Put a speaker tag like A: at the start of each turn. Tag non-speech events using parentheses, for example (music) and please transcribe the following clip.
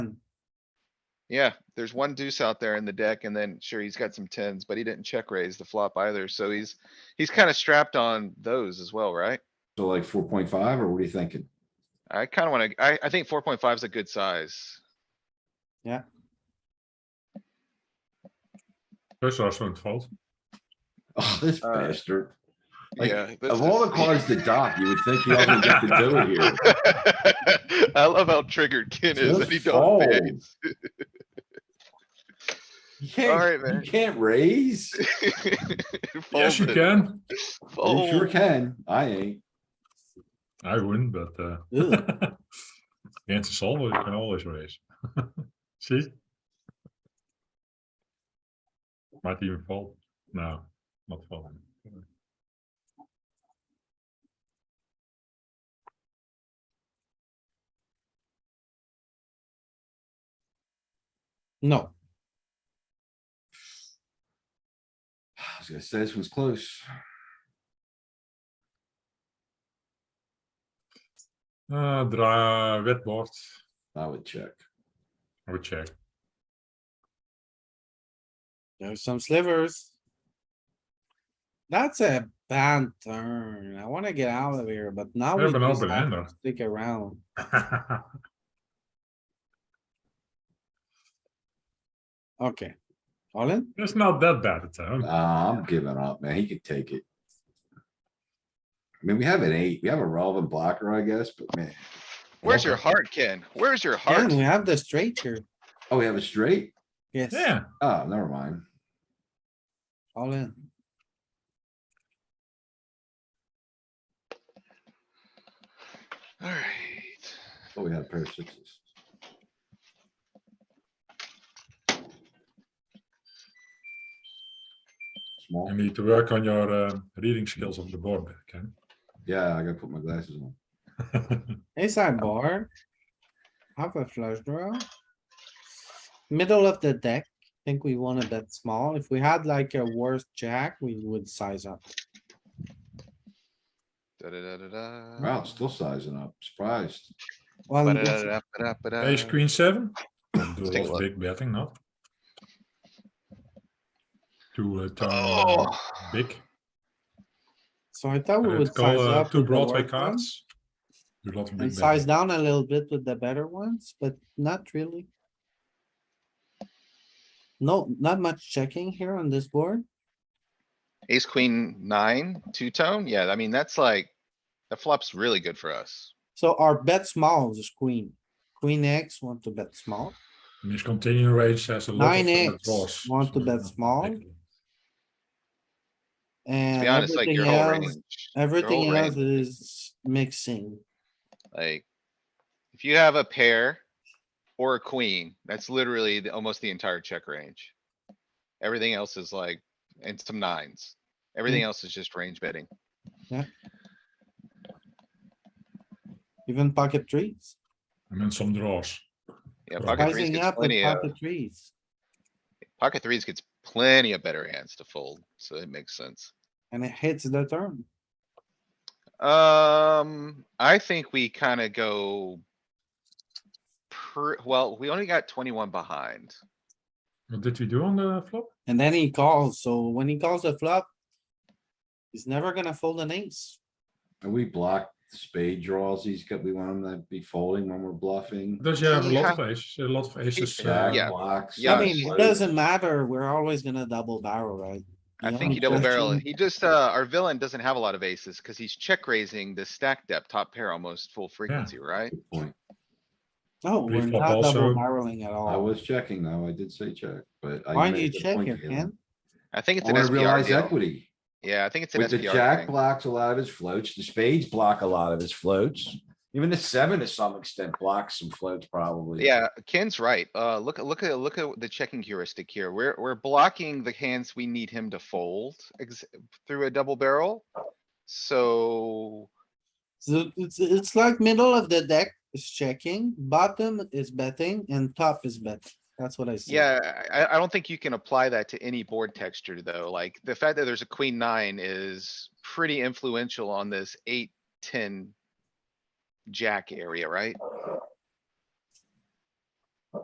A: Yeah, there's one deuce out there in the deck and then sure, he's got some tens, but he didn't check raise the flop either, so he's, he's kinda strapped on those as well, right?
B: So like four point five, or what are you thinking? (laughs)
A: I kinda wanna, I, I think four point five is a good size.
C: Plus Arsenal fault.
B: Oh, this
A: Uh,
B: bastard. Like,
A: Yeah. this
B: Of all
A: is-
B: the cards to dock, you would think you would get to do it here.
A: (laughs) I love how triggered Ken is
B: Just
A: and he don't
B: fold.
A: fades.
B: (laughs) You
A: Alright,
B: can't,
A: man. (laughs)
B: you can't raise.
C: Yes, you
A: Folded.
C: can.
B: You sure
A: Fold.
B: can. I ain't. (sighs)
C: I wouldn't, but uh, (laughs)
D: Ugh.
C: against the solver, you can always raise. (laughs) See? Might even fold. No, not folding.
D: No,
B: I was gonna say this one's close.
C: Uh, draw red board.
B: I would check.
C: I would check.
D: there's some slivers. That's a bad turn. I wanna get out of here, but now
C: We
D: we
C: have an
D: just
C: open
D: have
C: ender.
D: to stick around. Okay. All in?
C: (laughs) it's not that bad a turn.
B: Nah, Ah, I'm giving up, man. He could take it. I mean, we have an eight, we have a relevant blocker, I guess, but man.
A: Where's your heart, Ken? Where's your
D: Yeah,
A: heart?
D: we have the straight here.
B: Oh, we have a straight?
D: Yes,
C: Yeah,
B: Oh, never mind.
D: all in.
A: Alright.
B: Oh, we had a pair of sixes. Small.
C: you need to work on your uh, reading skills of the board, Ken.
B: Yeah, I gotta put my glasses on.
D: Inside bar. Half a flush draw. Middle of the deck. Think we wanna bet small. If we had like a worse jack, we would size up.
A: Da-da-da-da-da.
B: Wow, still sizing up. Surprised.
D: Well, that's-
A: uh,
B: (laughs)
A: Ba-da-da-da-da-da-da.
C: Ace queen seven. Don't do a
A: Take
C: lot
A: a
C: of
A: look.
C: big betting, not. To uh, turn uh,
A: Oh,
C: big.
D: So I thought we
C: Let's
D: would
C: call
D: size
C: uh,
D: up.
C: two
D: Oh, with the
C: Broadway
D: worst ones
C: cards. Dus Do a lot of
D: And
C: big
D: size
C: betting.
D: down a little bit with the better ones, but not really. No, not much checking here on this board.
A: ace, queen, nine, two tone. Yeah, I mean, that's like, that flop's really good for us.
D: So our bet small is queen. Queen X want to bet small.
C: Miss continuing range has a lot of.
D: 9x
C: uh, draws.
D: want to
C: So,
D: bet
C: uh,
D: small.
C: big.
A: To
D: And
A: be honest, like
D: everything
A: your whole
D: else,
A: range. your whole
D: everything else
A: range,
D: is mixing.
A: Like, if you have a pair or a queen, that's literally the, almost the entire check range. Everything else is like, and some nines.
D: Mm.
A: Everything else is just range betting.
D: Even pocket trees,
C: And then some draws.
A: Yeah,
C: Right.
A: pocket threes
D: rising
A: gets
D: up with
A: plenty of,
D: pocket trees.
A: pocket threes gets plenty of better hands to fold, so it makes sense.
D: And it hits the turn.
A: Um, I think we kinda go. Per, well, we only got twenty-one behind.
C: What did we do on the flop?
D: And then he calls, so when he calls the flop, he's never gonna fold an ace.
B: And we block spade draws. He's got, we want him to be folding when we're bluffing.
C: Does you have a
A: Yeah.
C: lot of aces, a lot of aces? uh,
B: Jack,
A: Yeah.
B: blocks.
A: Yeah.
D: I mean,
B: slice.
D: it doesn't matter, we're always gonna double barrel, right?
A: I
D: Yeah,
A: think
D: I'm
A: he double barrel. it.
D: checking.
A: He just, uh, our villain doesn't have a lot of aces because he's check raising the stack depth top pair almost full frequency, right?
B: Good point.
D: No, we're
C: Pre-flop
D: not double
C: also.
D: barreling at
B: I
D: all.
B: was checking though. I did say check, but. I
D: Why
B: made
D: do
B: a
D: you
B: good
D: check
B: point,
D: here,
B: Galen.
D: Ken?
A: I think it's
B: I
A: an
B: wanna
A: SPR
B: realize
A: deal.
B: equity.
A: Yeah, I think it's an
B: With the
A: SPR
B: jack
A: thing.
B: blocks a lot of his floats, the spades block a lot of his floats. Even the seven to some extent blocks some floats probably.
A: Yeah, Ken's right. Uh, look, at look at, look at the checking heuristic here. We're, we're blocking the hands we need him to fold ex- through a double barrel. So,
D: So it's, it's like middle of the deck is checking, bottom is betting and top is betting. That's what I see.
A: yeah, I, I- I don't think you can apply that to any board texture though. Like the fact that there's a queen nine is pretty influential on this eight, ten jack area, right?